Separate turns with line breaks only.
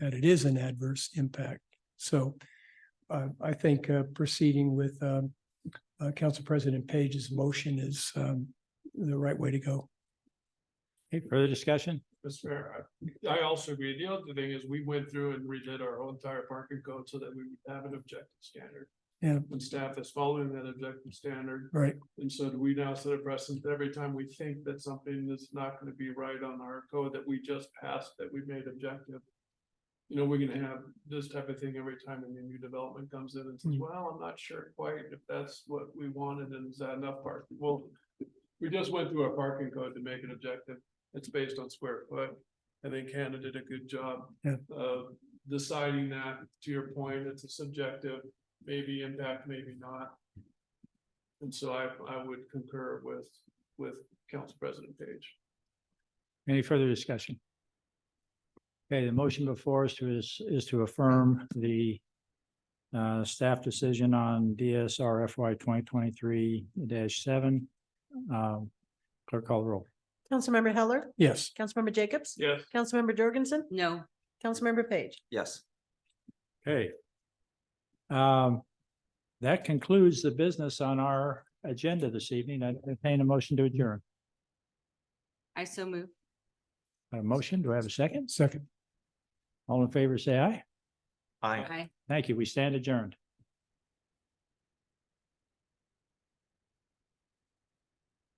that it is an adverse impact. So uh, I think uh, proceeding with um, uh, Council President Page's motion is um, the right way to go.
Any further discussion?
That's fair. I I also agree. The other thing is we went through and redid our whole entire parking code so that we would have an objective standard.
Yeah.
And staff is following that objective standard.
Right.
And so do we now set a precedent that every time we think that something is not gonna be right on our code that we just passed, that we made objective. You know, we're gonna have this type of thing every time a new development comes in and says,
Hmm.
well, I'm not sure quite if that's what we wanted and is that enough parking? Well, we just went through our parking code to make it objective. It's based on square foot. I think Hannah did a good job.
Yeah.
Of deciding that, to your point, it's a subjective, maybe impact, maybe not. And so I, I would concur with, with Council President Page.
Any further discussion? Okay, the motion before us to is, is to affirm the uh, staff decision on DSR FY twenty twenty-three seven. Um, Clerk call the roll.
Councilmember Heller,
Yes,
Councilmember Jacobs.
Yes,
Councilmember Jorgensen,
No,
Councilmember Page.
Yes,
Okay. Um, that concludes the business on our agenda this evening. I entertain a motion to adjourn.
I so move.
A motion, do I have a second?
second.
All in favor, say aye.
I.
Aye.
Thank you. We stand adjourned.